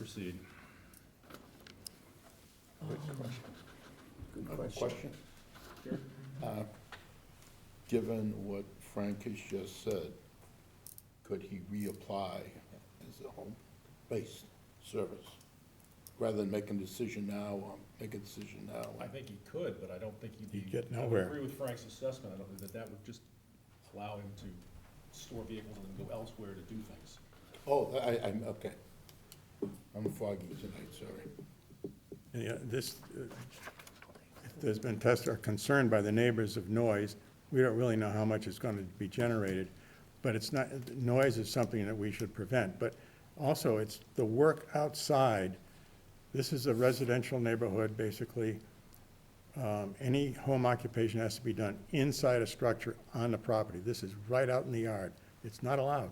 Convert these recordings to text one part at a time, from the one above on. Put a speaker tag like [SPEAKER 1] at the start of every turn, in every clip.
[SPEAKER 1] proceed?
[SPEAKER 2] Good
[SPEAKER 3] I have a
[SPEAKER 2] question.
[SPEAKER 3] question.
[SPEAKER 1] Sure.
[SPEAKER 3] Uh, Given what Frank has just said, could he reapply as a home-based service? Rather than making a decision now, um, make a decision now.
[SPEAKER 1] I think he could, but I don't think he'd be.
[SPEAKER 2] He'd get
[SPEAKER 1] I would
[SPEAKER 2] nowhere.
[SPEAKER 1] agree with Frank's assessment, I don't think that that would just allow him to store vehicles and then go elsewhere to do things.
[SPEAKER 3] Oh, I, I'm, okay. I'm foggy tonight, sorry.
[SPEAKER 2] Yeah, this, uh, there's been tests are concerned by the neighbors of noise. We don't really know how much is going to be generated, but it's not, noise is something that we should prevent. But also, it's the work outside. This is a residential neighborhood, basically. Um, Any home occupation has to be done inside a structure on the property. This is right out in the yard. It's not allowed.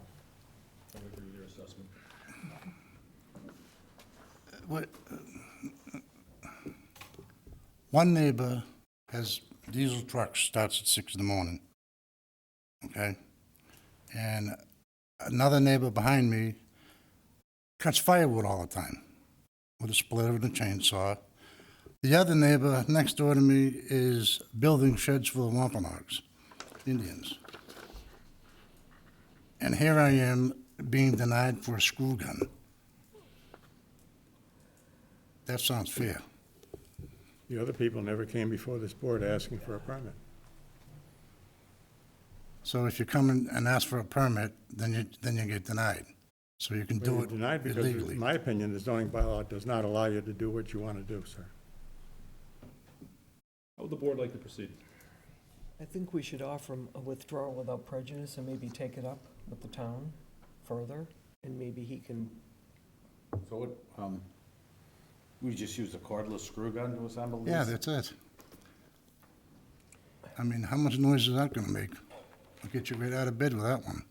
[SPEAKER 1] I would agree with your assessment.
[SPEAKER 4] What- uh, One neighbor has diesel trucks, starts at six in the morning, okay? And another neighbor behind me cuts firewood all the time with a splitter and a chainsaw. The other neighbor next door to me is building sheds for the Wampanoags, Indians. And here I am being denied for a screw gun. That sounds fair.
[SPEAKER 2] The other people never came before this board asking for a permit.
[SPEAKER 4] So if you come in and ask for a permit, then you, then you get denied. So you can
[SPEAKER 2] Well,
[SPEAKER 4] do
[SPEAKER 2] you're
[SPEAKER 4] it
[SPEAKER 2] Denied because, in
[SPEAKER 4] illegally.
[SPEAKER 2] my opinion, the zoning bylaw does not allow you to do what you want to do, sir.
[SPEAKER 1] How would the board like to proceed?
[SPEAKER 5] I think we should offer him a withdrawal without prejudice and maybe take it up with the town further, and maybe he can,
[SPEAKER 6] So what, um, we just used a cordless screw gun to assemble these?
[SPEAKER 4] Yeah, that's it. I mean, how much noise is that gonna make? I'll get you right out of bed with that one.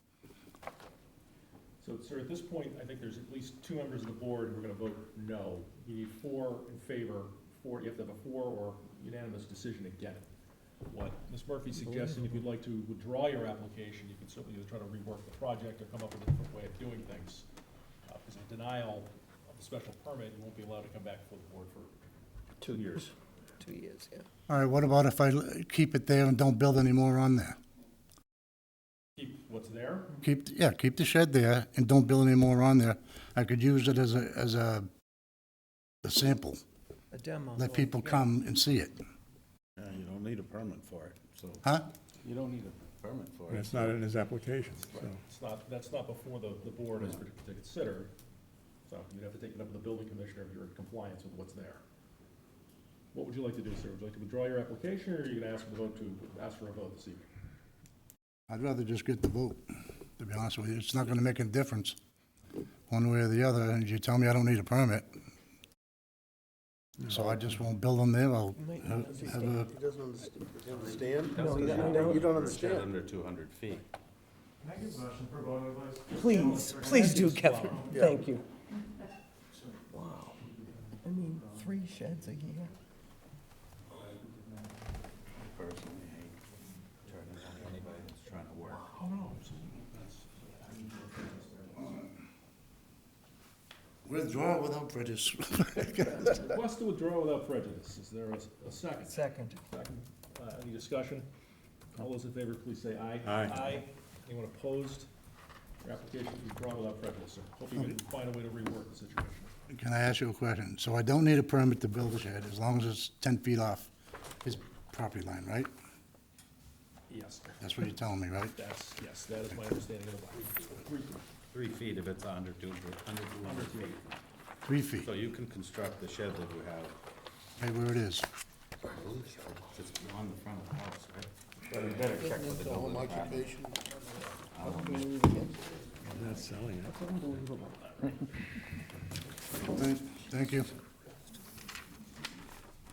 [SPEAKER 1] So, sir, at this point, I think there's at least two members of the board who are gonna vote no. You need four in favor, four, you have to have a four or unanimous decision again. What Ms. Murphy's suggesting, if you'd like to withdraw your application, you can certainly either try to rework the project or come up with a different way of doing things. Uh, because a denial of the special permit, you won't be allowed to come back before the board for two years.
[SPEAKER 5] two years, yeah.
[SPEAKER 4] All right, what about if I l- keep it there and don't build any more on there?
[SPEAKER 1] Keep what's there,
[SPEAKER 4] Keep, yeah, keep the shed there and don't build any more on there. I could use it as a, as a, a sample.
[SPEAKER 5] A demo.
[SPEAKER 4] Let people come and see it,
[SPEAKER 6] Yeah, you don't need a permit for it, so,
[SPEAKER 4] huh?
[SPEAKER 6] you don't need a permit for
[SPEAKER 2] And
[SPEAKER 6] it.
[SPEAKER 2] it's not in his application, so.
[SPEAKER 1] it's not, that's not before the, the board is to consider. So you'd have to take it up with the building commissioner if you're in compliance with what's there. What would you like to do, sir? Would you like to withdraw your application, or are you gonna ask for the vote to, ask for a vote this evening?
[SPEAKER 4] I'd rather just get the vote, to be honest with you. It's not gonna make a difference, one way or the other, and you tell me I don't need a permit. So I just won't build them there, I'll
[SPEAKER 5] Might not
[SPEAKER 4] have- have a,
[SPEAKER 7] He doesn't understand. You don't understand?
[SPEAKER 5] No, you don't-
[SPEAKER 7] You don't
[SPEAKER 6] Or a shed
[SPEAKER 7] understand.
[SPEAKER 6] Under two hundred feet.
[SPEAKER 5] Please, please do, Kevin, thank you. Wow, I mean, three sheds a year,
[SPEAKER 6] Personally, I hate turning on anybody that's trying to work.
[SPEAKER 1] Oh, no,
[SPEAKER 4] withdraw without prejudice.
[SPEAKER 1] Request to withdraw without prejudice. Is there a, a second?
[SPEAKER 5] second.
[SPEAKER 1] Second. Uh, any discussion? All those in favor, please say aye.
[SPEAKER 2] Aye.
[SPEAKER 1] Anyone opposed? Your application is withdrawn without prejudice, sir. Hope you can find a way to rework the situation.
[SPEAKER 4] Can I ask you a question? So I don't need a permit to build a shed, as long as it's ten feet off his property line, right?
[SPEAKER 1] Yes,
[SPEAKER 4] That's what you're telling me, right?
[SPEAKER 1] that's, yes, that is my understanding of the law.
[SPEAKER 6] Three feet if it's under two, under two hundred feet.
[SPEAKER 4] Three feet,
[SPEAKER 6] So you can construct the shed that you have,
[SPEAKER 4] right where it is.
[SPEAKER 6] just on the front of the house, right? But you better check with the building
[SPEAKER 3] Home
[SPEAKER 6] department.
[SPEAKER 3] occupation,
[SPEAKER 2] Not selling it.
[SPEAKER 4] Thank- Thank you.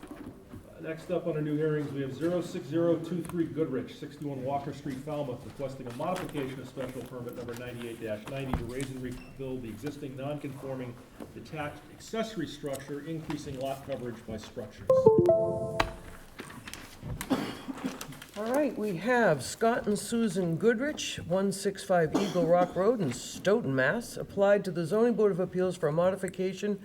[SPEAKER 1] Uh, Next up on our new hearings, we have 06023 Goodrich, 61 Walker Street, Falmouth, requesting a modification of special permit number 98-90 to raise and rebuild the existing non-conforming detached accessory structure, increasing lot coverage by structures.
[SPEAKER 5] All right, we have Scott and Susan Goodrich, 165 Eagle Rock Road in Stoughton, Mass., applied to the zoning board of appeals for a modification